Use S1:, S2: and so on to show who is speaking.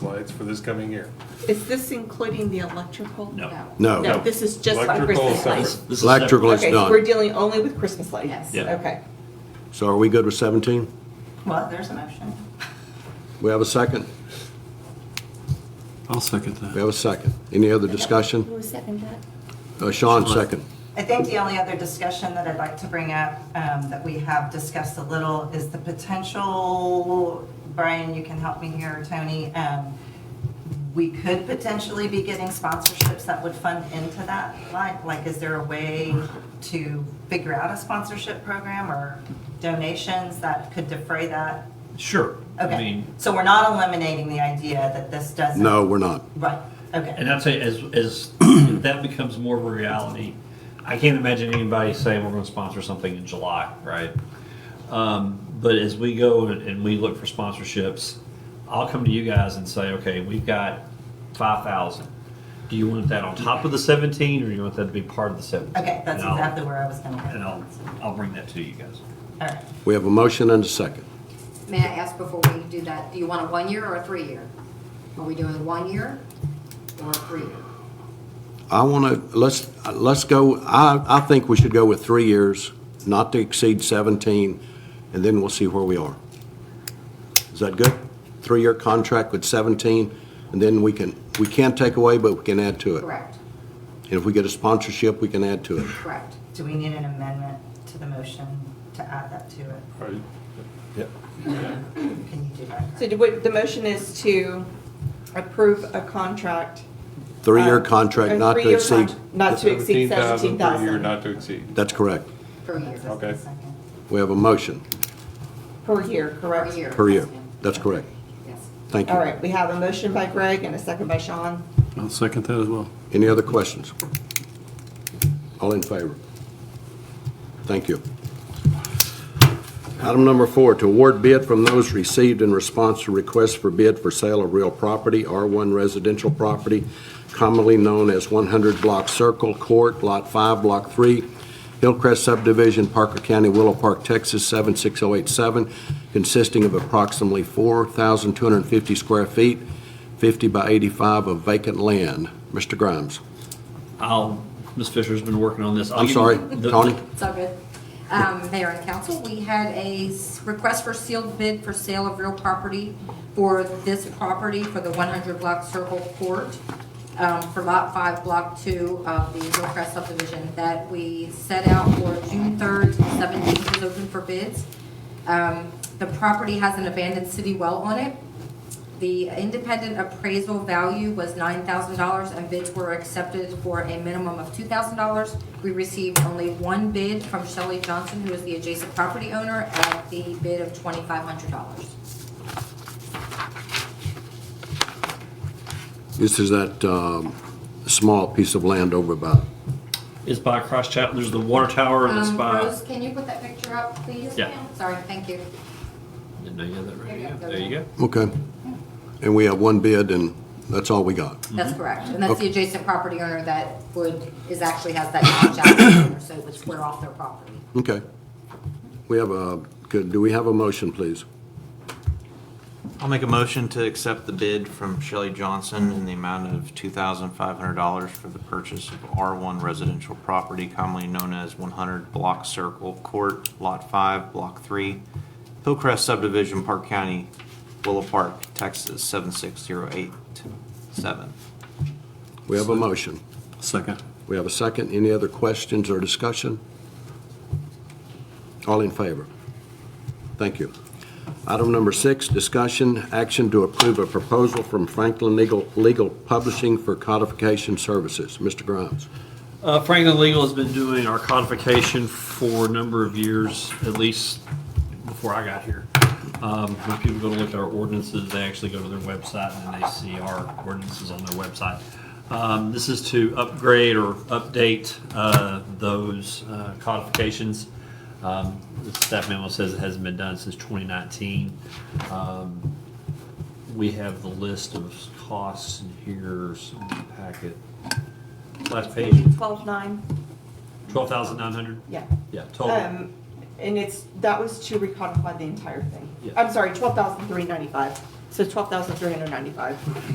S1: lights for this coming year.
S2: Is this including the electrical?
S3: No.
S4: No.
S2: No, this is just for
S1: Electrical
S2: Christmas
S1: separate.
S2: lights.
S3: This is
S4: Electrical is
S2: Okay, so we're
S4: done.
S2: dealing only with Christmas lights?
S5: Yes.
S3: Yeah.
S2: Okay.
S4: So are we good with 17?
S5: Well, there's a motion.
S4: We have a second?
S6: I'll second
S4: We
S6: that.
S4: have a second. Any other discussion?
S7: Who seconded that?
S4: Uh, Sean, second.
S5: I think the only other discussion that I'd like to bring up, um, that we have discussed a little, is the potential, Brian, you can help me here, Tony, um, we could potentially be getting sponsorships that would fund into that line. Like, is there a way to figure out a sponsorship program or donations that could defray that?
S3: Sure. I
S5: Okay,
S3: mean,
S5: so we're not eliminating the idea that this doesn't.
S4: No, we're not.
S5: Right, okay.
S3: and I'd say as, as that becomes more of a reality, I can't imagine anybody saying we're gonna sponsor something in July, right? Um, but as we go and and we look for sponsorships, I'll come to you guys and say, okay, we've got five thousand. Do you want that on top of the seventeen, or do you want that to be part of the seventeen?
S5: Okay, that's
S3: And I'll-
S5: exactly where I was going
S3: And
S5: to
S3: I'll, I'll bring that to you guys.
S5: go. All right.
S4: We have a motion and a second.
S7: May I ask before we do that, do you want a one-year or a three-year? Are we doing one year or a three-year?
S4: I want to, let's, let's go, I, I think we should go with three years, not to exceed 17, and then we'll see where we are. Is that good? Three-year contract with 17, and then we can, we can't take away, but we can add to it.
S7: Correct,
S4: And if we get a sponsorship, we can add to it.
S7: correct.
S5: Do we need an amendment to the motion to add that to it?
S1: Are you- yeah.
S5: Can you do that?
S2: So do what, the motion is to approve a contract?
S4: Three-year
S2: uh,
S4: contract,
S2: a
S4: not to
S2: three-year
S4: exceed.
S2: con- Not to exceed
S1: 17,000 per year,
S2: 17,000
S1: Not to exceed.
S4: That's correct.
S7: Per year.
S5: That's the
S1: Okay.
S5: second.
S4: We have a motion
S2: per year,
S7: Per
S2: correct?
S7: year.
S4: per year.
S7: yes, ma'am.
S4: That's correct.
S7: Yes.
S4: Thank
S2: All
S4: you.
S2: right, we have a motion by Greg and a second by Sean.
S6: I'll second that as well.
S4: Any other questions? All in favor? Thank you. Item number four, to award bid from those received in response to requests for bid for sale of real property, R1 residential property, commonly known as 100 Block Circle Court, Lot 5, Block 3, Hillcrest Subdivision, Parker County, Willow Park, Texas, 76087, consisting of approximately 4,250 square feet, 50 by 85 of vacant land. Mr. Grimes.
S3: I'll, Ms. Fisher's been working on this. I'll
S4: I'm
S3: give you
S4: sorry,
S3: the-
S4: Tony?
S7: It's all good. Um, Mayor and council, we had a s- request for sealed bid for sale of real property for this property for the 100 block Circle Court um, for Lot 5, Block 2 of the Hillcrest subdivision that we set out for June 3rd, to the 17th is open for bids. Um, The property has an abandoned city well on it. The independent appraisal value was $9,000, and bids were accepted for a minimum of $2,000. We received only one bid from Shelley Johnson, who is the adjacent property owner, at the bid of $2,500.
S4: This is that um, small piece of land over by,
S3: It's by Cross Chapel. There's the water tower that's
S7: Um,
S3: by.
S7: Rose, can you put that picture up, please?
S3: Yeah. Mm-hmm.
S7: ma'am? Sorry, thank you.
S3: Didn't know you had that right
S7: There you
S3: here.
S7: go.
S3: There you go.
S4: okay. And we have one bid, and that's all we got.
S7: That's correct. And that's
S4: Okay.
S7: the adjacent property owner that would, is actually has that notch out there, so it would square off their property.
S4: Okay. We have a, good, do we have a motion, please?
S8: I'll make a motion to accept the bid from Shelley Johnson in the amount of $2,500 for the purchase of R1 residential property commonly known as 100 Block Circle Court, Lot 5, Block 3, Hillcrest Subdivision, Park County, Willow Park, Texas, 76087.
S4: We have a motion.
S6: Second.
S4: We have a second. Any other questions or discussion? All in favor? Thank you. Item number six, discussion, action to approve a proposal from Franklin Legal Legal Publishing for codification services. Mr. Grimes.
S3: Uh, Franklin Legal has been doing our codification for a number of years, at least before I got here. Um, when people go to look at our ordinances, they actually go to their website and then they see our ordinances on their website. Um, this is to upgrade or update, uh, those, uh, codifications. Um, the staff memo says it hasn't been done since twenty nineteen. Um, we have the list of costs in here, some packet. Last page.
S2: Twelve nine,
S3: Twelve thousand nine hundred?
S2: yeah.
S3: Yeah, total.
S2: Um, and it's, that was to recodify the entire thing.
S3: Yeah.
S2: I'm sorry, twelve thousand three ninety-five. So twelve thousand three hundred ninety-five.